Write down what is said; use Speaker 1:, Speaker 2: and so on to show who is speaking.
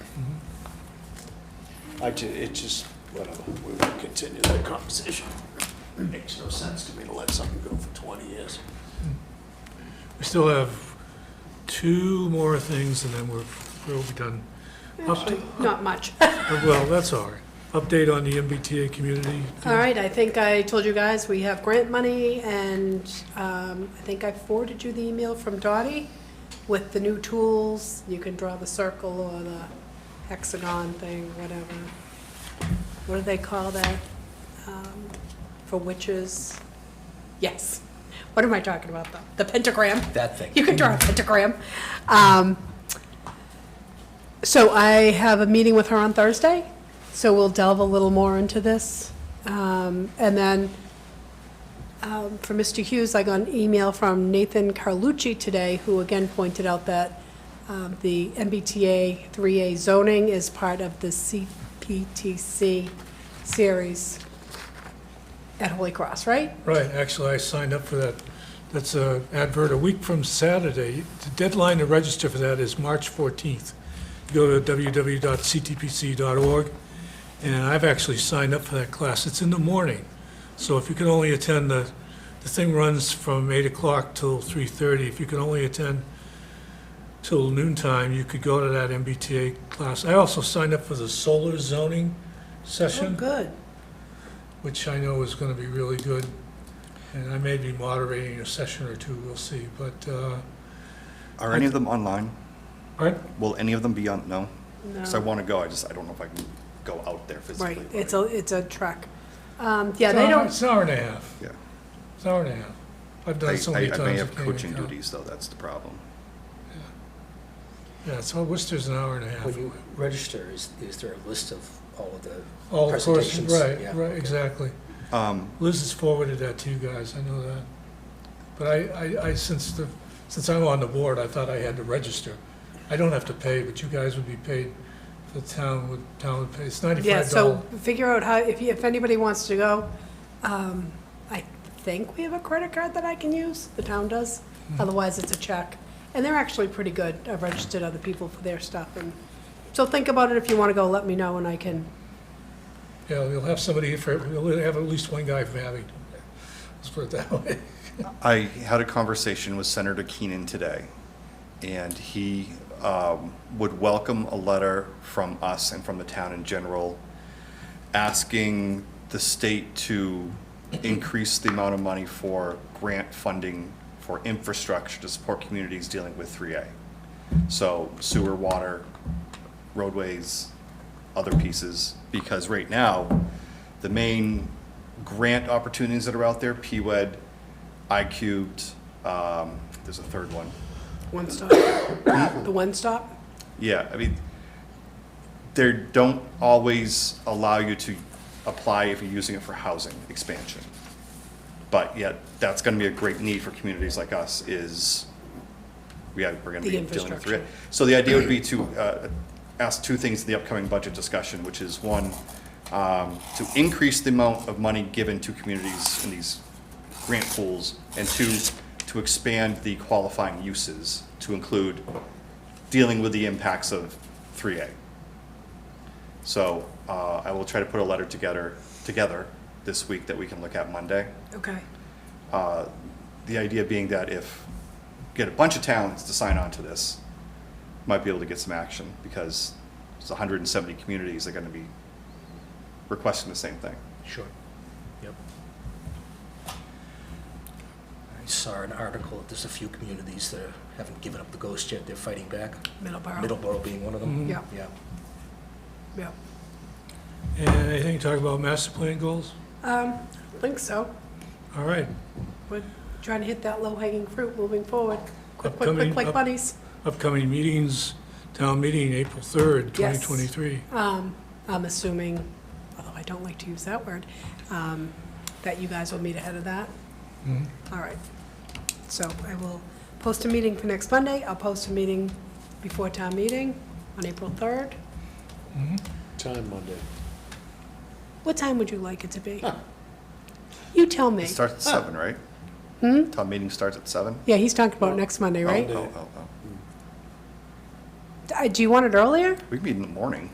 Speaker 1: I ju, it just, whatever, we will continue that conversation. Makes no sense to me to let something go for twenty years.
Speaker 2: We still have two more things and then we're, we'll be done. Upda-
Speaker 3: Not much.
Speaker 2: Well, that's all right. Update on the MBTA community.
Speaker 3: All right, I think I told you guys, we have grant money, and um, I think I forwarded you the email from Dottie with the new tools. You can draw the circle or the hexagon thing, whatever. What do they call that? Um, For witches? Yes. What am I talking about, though? The pentagram?
Speaker 4: That thing.
Speaker 3: You can draw a pentagram. Um, So I have a meeting with her on Thursday, so we'll delve a little more into this. Um, And then um, for Mr. Hughes, I got an email from Nathan Carlucci today, who again pointed out that um, the MBTA 3A zoning is part of the CPTC series at Holy Cross, right?
Speaker 2: Right, actually, I signed up for that. That's a advert a week from Saturday. The deadline to register for that is March 14th. Go to www.ctpc.org, and I've actually signed up for that class. It's in the morning, so if you can only attend the, the thing runs from 8 o'clock till 3:30. If you can only attend till noontime, you could go to that MBTA class. I also signed up for the solar zoning session
Speaker 3: good.
Speaker 2: which I know is going to be really good. And I may be moderating a session or two, we'll see, but, uh,
Speaker 5: Are any of them online?
Speaker 2: alright,
Speaker 5: Will any of them be on, no? Because I
Speaker 3: No.
Speaker 5: want to go, I just, I don't know if I can go out there physically.
Speaker 3: Right,
Speaker 5: but
Speaker 3: it's
Speaker 5: I-
Speaker 3: a, it's a trek. Um, Yeah,
Speaker 2: it's
Speaker 3: they
Speaker 2: an hour-
Speaker 3: don't,
Speaker 2: it's an hour and a half,
Speaker 5: Yeah.
Speaker 2: it's an hour and a half. I've done it so
Speaker 5: I-
Speaker 2: many
Speaker 5: I,
Speaker 2: times.
Speaker 5: I may
Speaker 2: I
Speaker 5: have
Speaker 2: can't even
Speaker 5: coaching
Speaker 2: count.
Speaker 5: duties, though, that's the problem.
Speaker 2: Yeah, so Worcester's an hour and a half.
Speaker 4: When you register, is, is there a list of all of the
Speaker 2: All the courses,
Speaker 4: presentations?
Speaker 2: right,
Speaker 4: Yeah,
Speaker 2: right,
Speaker 4: okay.
Speaker 2: exactly.
Speaker 5: Um,
Speaker 2: Liz has forwarded that to you guys, I know that. But I, I, I, since the, since I'm on the board, I thought I had to register. I don't have to pay, but you guys would be paid, the town would, town would pay, it's
Speaker 3: yeah,
Speaker 2: ninety-five
Speaker 3: so
Speaker 2: dollars.
Speaker 3: figure out how, if, you- if anybody wants to go. um, I think we have a credit card that I can use, the town does, otherwise it's a check. And they're actually pretty good, I've registered other people for their stuff, and, so think about it, if you want to go, let me know, and I can,
Speaker 2: Yeah, we'll have somebody for, we'll have at least one guy from Abington. Let's put it that way.
Speaker 5: I had a conversation with Senator Keenan today, and he um, would welcome a letter from us and from the town in general asking the state to increase the amount of money for grant funding for infrastructure to support communities dealing with 3A. So sewer, water, roadways, other pieces, because right now, the main grant opportunities that are out there, E PWED, I cubed, um, there's a third one.
Speaker 3: one stop, the one stop?
Speaker 5: Yeah, I mean, they don't always allow you to apply if you're using it for housing expansion. But yet, that's gonna be a great need for communities like us is, we are, we're gonna
Speaker 3: The
Speaker 5: be dealing with it.
Speaker 3: infrastructure.
Speaker 5: So the idea would be to, uh, ask two things in the upcoming budget discussion, which is one, um, to increase the amount of money given to communities in these grant pools, and two, to expand the qualifying uses to include dealing with the impacts of 3A. So uh, I will try to put a letter together, together this week that we can look at Monday.
Speaker 3: Okay,
Speaker 5: Uh, The idea being that if, get a bunch of towns to sign on to this, might be able to get some action because it's 170 communities are going to be requesting the same thing.
Speaker 4: Sure, yep. I saw an article, that there's a few communities that are- haven't given up the ghost yet, they're fighting back,
Speaker 3: Middleborough,
Speaker 4: Middleborough being one of them.
Speaker 3: yeah,
Speaker 4: Yeah,
Speaker 3: yeah,
Speaker 2: And anything to talk about master plan goals?
Speaker 3: I think so.
Speaker 2: All right,
Speaker 3: We're trying to hit that low-hanging fruit moving forward, quick, quick,
Speaker 2: Upcoming-
Speaker 3: quick, like
Speaker 2: up-
Speaker 3: bunnies.
Speaker 2: upcoming meetings, town meeting, April 3rd,
Speaker 3: Yes.
Speaker 2: 2023.
Speaker 3: Um, I'm assuming, although I don't like to use that word, um, that you guys will meet ahead of that? All right. So I will post a meeting for next Monday. I'll post a meeting before town meeting on April 3rd.
Speaker 1: Time Monday.
Speaker 3: What time would you like it to be? You tell me.
Speaker 5: It starts at seven, right? Town meeting starts at seven?
Speaker 3: Yeah, he's talking about next Monday, right?
Speaker 1: Monday.
Speaker 5: Oh, oh, oh.
Speaker 3: Uh, Do you want it earlier?
Speaker 5: We can meet in the morning.